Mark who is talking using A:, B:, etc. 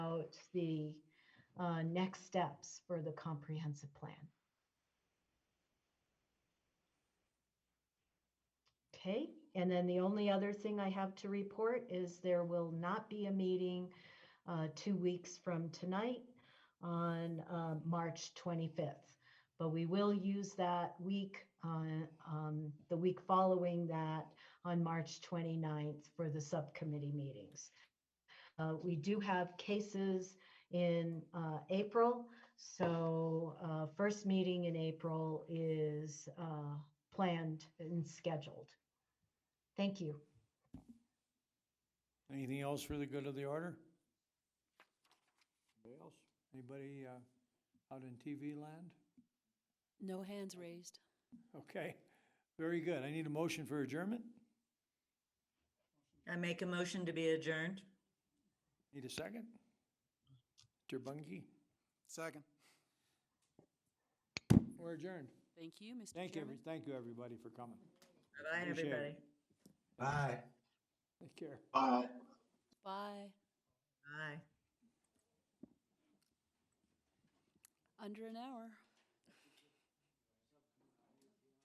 A: out the uh, next steps for the comprehensive plan. Okay, and then the only other thing I have to report is there will not be a meeting uh, two weeks from tonight on uh, March 25th. But we will use that week, uh, um, the week following that on March 29th for the subcommittee meetings. Uh, We do have cases in uh, April, so uh, first meeting in April is uh, planned and scheduled. Thank you.
B: Anything else for the good of the order? Anybody else? Anybody uh, out in TV land?
C: No hands raised.
B: Okay, very good. I need a motion for adjournment.
D: I make a motion to be adjourned.
B: Need a second? Mr. Bungie,
E: Second.
B: we're adjourned.
C: Thank you, Mr.
B: Thank you,
C: Chairman.
B: every- thank you, everybody, for coming.
D: Bye-bye,
B: Appreciate it.
D: everybody.
E: Bye.
B: Take care.
E: Bye.
C: Bye.
D: Bye.
C: Under an hour.